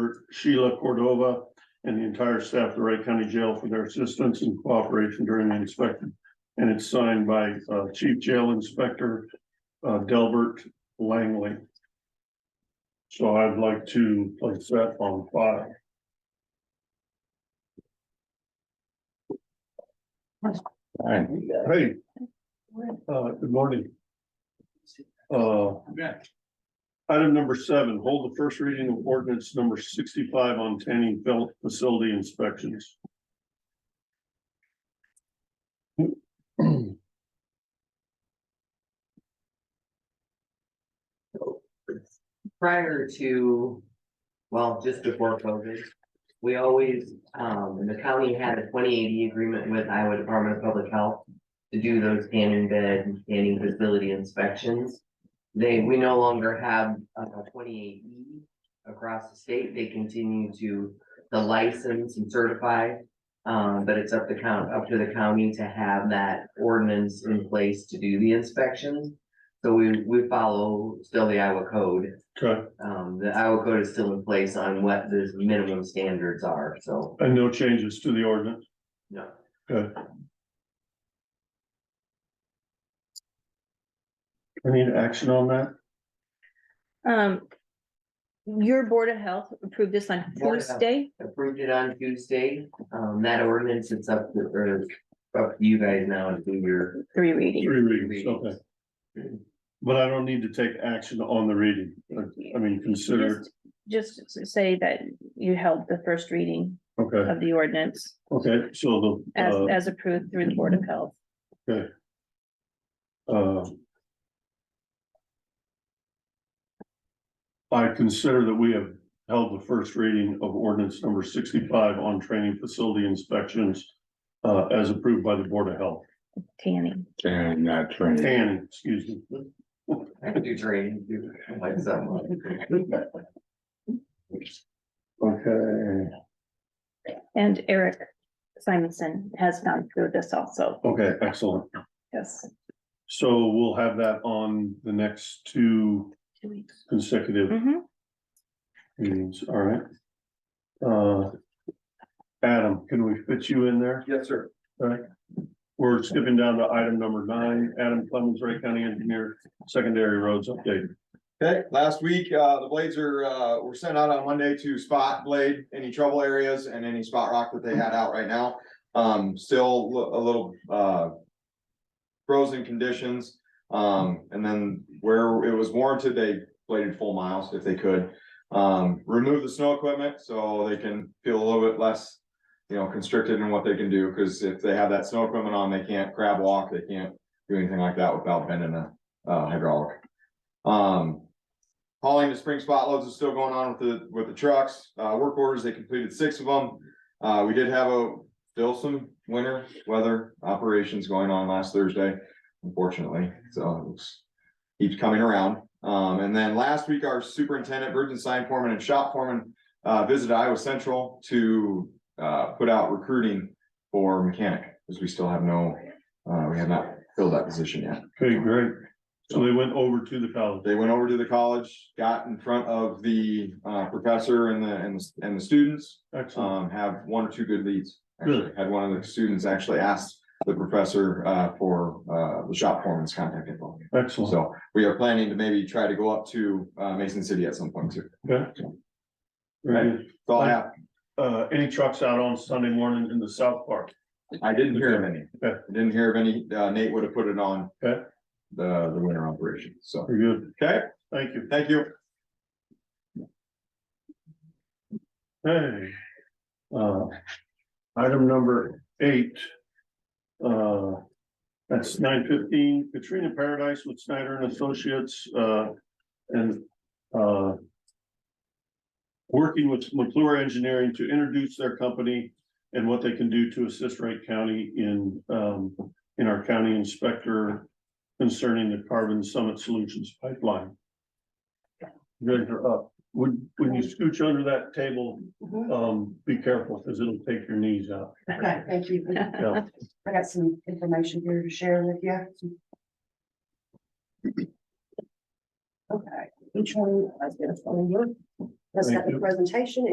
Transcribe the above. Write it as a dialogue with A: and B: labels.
A: Director Sheila Cordova and the entire staff of the Wright County Jail for their assistance and cooperation during the inspection. And it's signed by uh, Chief Jail Inspector uh, Delbert Langley. So I'd like to place that on file.
B: Alright,
A: Hey, uh, good morning. Uh, Item number seven, hold the first reading of ordinance number sixty-five on tanning fel- facility inspections.
C: prior to, well, just before COVID, we always, um, the county had a twenty eighty agreement with Iowa Department of Public Health to do those tanning bed and tanning facility inspections. They, we no longer have a twenty eighty across the state. They continue to, the license and certify. Um, but it's up the count, up to the county to have that ordinance in place to do the inspections. So we, we follow still the Iowa code.
A: Okay,
C: Um, the Iowa code is still in place on what the minimum standards are, so,
A: and no changes to the ordinance.
C: no.
A: I need action on that.
D: Um, your Board of Health approved this on
C: Board of Health.
D: Tuesday.
C: Approved it on Tuesday, um, that ordinance, it's up to, or up to you guys now to do your
D: Three readings.
A: Three readings, okay.
C: readings.
A: But I don't need to take action on the reading. I- I mean, consider,
D: Just just say that you held the first reading
A: okay,
D: of the ordinance
A: okay, so the.
D: as,
A: uh,
D: as approved through the Board of Health.
A: uh, I consider that we have held the first reading of ordinance number sixty-five on training facility inspections uh, as approved by the Board of Health,
D: Tanning.
B: and not training.
A: and, excuse me.
C: I can do training, do like something.
A: Okay,
D: And Eric Simonson has gone through this also.
A: okay, excellent.
D: Yes.
A: So we'll have that on the next two
D: Two weeks.
A: consecutive
D: Mhm.
A: meetings, all right? Uh, Adam, can we fit you in there?
E: Yes, sir.
A: We're skipping down to item number nine, Adam Clemens, Ray County Engineer, Secondary Roads Update.
E: Okay, last week, uh, the blades are, uh, were sent out on Monday to spot blade any trouble areas and any spot rock that they had out right now. Um, still li- a little, uh. Frozen conditions, um, and then where it was warranted, they bladed full miles if they could. Um, remove the snow equipment so they can feel a little bit less, you know, constricted in what they can do, cause if they have that snow equipment on, they can't crab walk, they can't. Do anything like that without bending a, uh, hydraulic. Um. Hauling the spring spot loads is still going on with the, with the trucks, uh, work orders, they completed six of them. Uh, we did have a, still some winter weather operations going on last Thursday, unfortunately, so it's. Keeps coming around, um, and then last week, our superintendent, virgin sign foreman and shop foreman, uh, visited Iowa Central to. Uh, put out recruiting for mechanic, because we still have no, uh, we have not filled that position yet.
A: Okay, great. So they went over to the college.
E: They went over to the college, got in front of the uh professor and the and the and the students.
A: Excellent.
E: Um, have one or two good leads. Actually, had one of the students actually asked the professor uh for uh the shop foreman's contact info.
A: Excellent.
E: Uh, So we are planning to maybe try to go up to uh Mason City at some point too.
A: Okay. Very good.
E: That's all I have.
A: Uh, any trucks out on Sunday morning in the South Park?
E: I didn't hear of any.
A: Okay.
E: I Didn't hear of any. Uh Nate would have put it on.
A: Okay.
E: The the winter operation. So,
A: Very good.
E: okay,
A: Thank you.
E: thank you.
A: Hey. Uh, item number eight. Uh, that's nine fifteen Katrina Paradise with Snyder and Associates, uh, and, uh, working with McClure Engineering to introduce their company and what they can do to assist Wright County in, um, in our county inspector concerning the Carbon Summit Solutions Pipeline. You guys are up. Would, when you scooch under that table, um, be careful, because it'll take your knees out.
F: Mm-hmm. Okay, thank you.
A: Yeah.
F: I got some information here to share with you. Okay, each one, I guess, one of you. Let's have
A: Thank
F: the
A: you.
F: presentation